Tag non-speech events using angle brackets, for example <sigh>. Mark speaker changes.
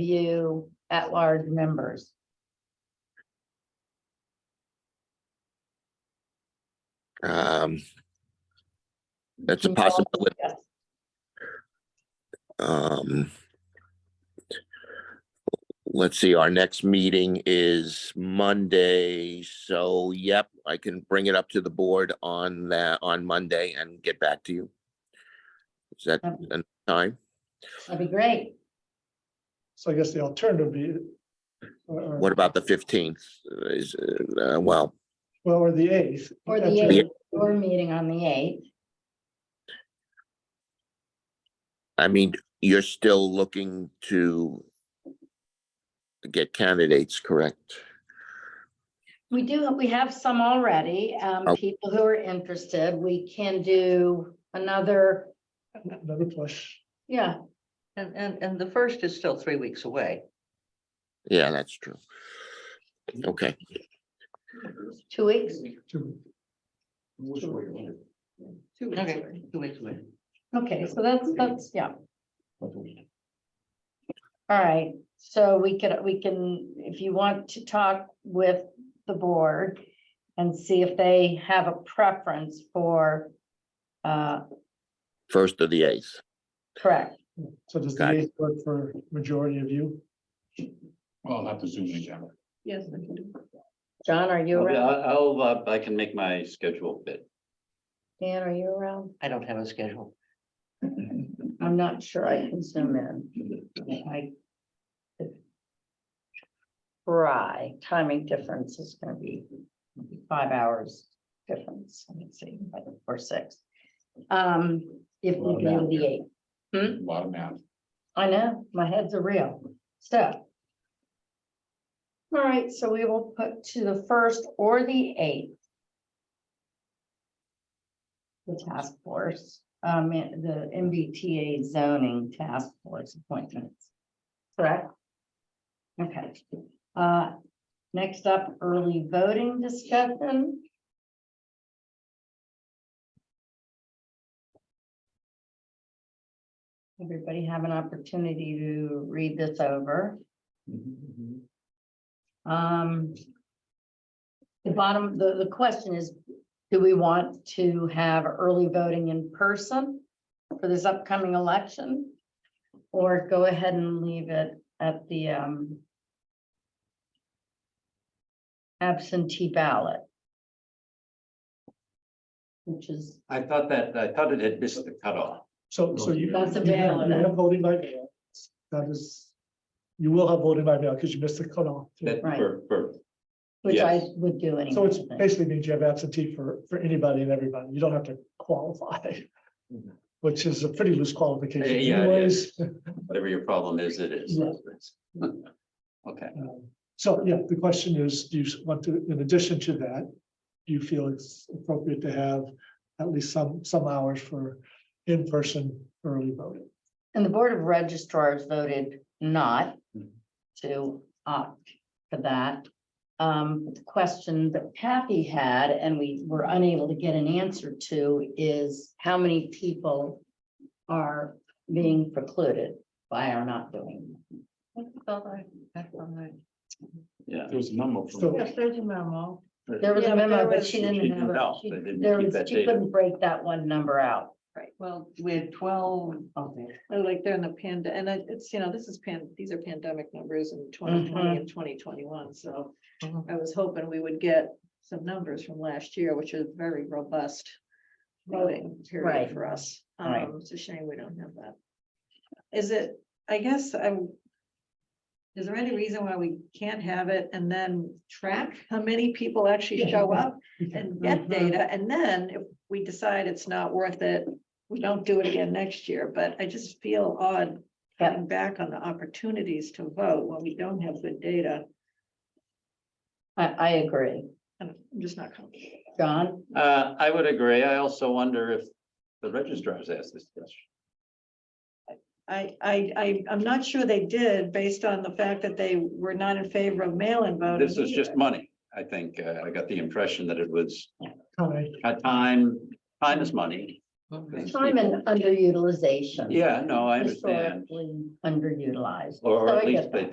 Speaker 1: interview at-large members.
Speaker 2: Um, that's a
Speaker 1: Can you all
Speaker 2: possibility.
Speaker 1: discuss?
Speaker 2: Um, let's see, our next meeting is Monday, so yep, I can bring it up to the board on that, on Monday and get back to you. Is that
Speaker 1: Okay.
Speaker 2: enough time?
Speaker 1: That'd be great.
Speaker 3: So I guess the alternative would be. uh, or- or-
Speaker 2: What about the fifteenth? Is, uh, well,
Speaker 3: Well, or the eighth.
Speaker 1: Or the
Speaker 3: That's-
Speaker 1: eighth, or meeting on the eighth.
Speaker 2: I mean, you're still looking to get candidates, correct?
Speaker 1: We do, we have some already, um,
Speaker 2: Oh.
Speaker 1: people who are interested. We can do another,
Speaker 3: Another push.
Speaker 1: yeah,
Speaker 4: And, and, and the first is still three weeks away.
Speaker 2: Yeah, that's true. Okay,
Speaker 1: two weeks.
Speaker 3: to-
Speaker 4: Okay, two weeks away.
Speaker 1: Okay, so that's, that's, yeah. All right, so we could, we can, if you want to talk with the board and see if they have a preference for, uh,
Speaker 2: first of the eighth.
Speaker 1: correct.
Speaker 3: So does the
Speaker 2: Got it.
Speaker 3: eighth work for majority of you?
Speaker 5: Well, I'll have to zoom in again.
Speaker 4: Yes.
Speaker 1: John, are you
Speaker 6: I'll,
Speaker 1: around?
Speaker 6: I'll, uh, I can make my schedule fit.
Speaker 1: Dan, are you around?
Speaker 4: I don't have a schedule.
Speaker 1: I'm not sure I can zoom in. I could Try, timing difference is gonna be five hours difference, let me see, like, or six. Um, if we do the eight,
Speaker 5: A lot of math.
Speaker 1: I know, my head's a real stuff. All right, so we will put to the first or the eighth. The task force, um, and the MBTA zoning task force appointments. Correct? Okay, uh, next up, early voting discussion. Everybody have an opportunity to read this over. Um. The bottom, the, the question is, do we want to have early voting in person for this upcoming election? Or go ahead and leave it at the, um. Absentee ballot. Which is,
Speaker 6: I thought that, I thought it had missed the cutoff.
Speaker 3: So, so you.
Speaker 1: That's a
Speaker 3: you have-
Speaker 1: valid-
Speaker 3: You have voting by mail. That is, you will have voting by mail because you missed the cutoff.
Speaker 6: That
Speaker 1: Right.
Speaker 6: for, for,
Speaker 1: which I
Speaker 6: Yes.
Speaker 1: would do anyway.
Speaker 3: So it's
Speaker 1: but-
Speaker 3: basically means you have absentee for, for anybody and everybody. You don't have to qualify.
Speaker 6: Mhm.
Speaker 3: Which is a pretty loose qualification
Speaker 6: Yeah, yeah, it
Speaker 3: anyways.
Speaker 6: whatever your problem is, it is.
Speaker 3: Yeah.
Speaker 6: <laughs> Okay,
Speaker 3: Um, So, yeah, the question is, do you s- want to, in addition to that, do you feel it's appropriate to have at least some, some hours for in-person early voting?
Speaker 1: And the Board of registrars voted not
Speaker 6: Mhm.
Speaker 1: to opt for that. Um, the question that Kathy had, and we were unable to get an answer to, is how many people are being precluded by our not doing?
Speaker 6: yeah.
Speaker 5: There was a number.
Speaker 3: So-
Speaker 5: from-
Speaker 3: Yes,
Speaker 4: there's a memo.
Speaker 1: There was a
Speaker 4: Yeah,
Speaker 1: memo,
Speaker 4: there
Speaker 1: but
Speaker 4: was-
Speaker 1: she didn't have,
Speaker 6: No,
Speaker 1: it. She-
Speaker 6: they didn't
Speaker 1: there
Speaker 6: keep
Speaker 1: was,
Speaker 6: that
Speaker 1: she
Speaker 6: data.
Speaker 1: couldn't break that one number out.
Speaker 7: Right, well,
Speaker 4: We had twelve of them.
Speaker 7: like during the pand, and I- it's, you know, this is pan, these are pandemic numbers in twenty
Speaker 4: Mm-hmm.
Speaker 7: twenty and twenty twenty-one, so.
Speaker 4: Mhm.
Speaker 7: I was hoping we would get some numbers from last year, which is very robust. Voting
Speaker 1: Right.
Speaker 7: period for us.
Speaker 1: Right.
Speaker 7: Um, it's a shame we don't have that. Is it, I guess I'm. Is there any reason why we can't have it and then track how many people actually show up? and get
Speaker 1: Mm-hmm.
Speaker 7: data, and then if we decide it's not worth it, we don't do it again next year, but I just feel odd
Speaker 1: Yeah.
Speaker 7: cutting back on the opportunities to vote when we don't have good data,
Speaker 1: I, I agree.
Speaker 7: and I'm just not comfortable.
Speaker 1: John,
Speaker 6: Uh, I would agree. I also wonder if the registrars asked this question.
Speaker 7: I, I, I, I'm not sure they did, based on the fact that they were not in favor of mail-in voting.
Speaker 6: This is just
Speaker 7: either.
Speaker 6: money. I think, uh, I got the impression that it was
Speaker 3: All right,
Speaker 6: uh, time, time is money. 'Cause
Speaker 1: Time and underutilization.
Speaker 6: Yeah, no, I understand.
Speaker 1: Historically underutilized.
Speaker 6: Or
Speaker 1: So I
Speaker 6: at
Speaker 1: get that.
Speaker 6: least they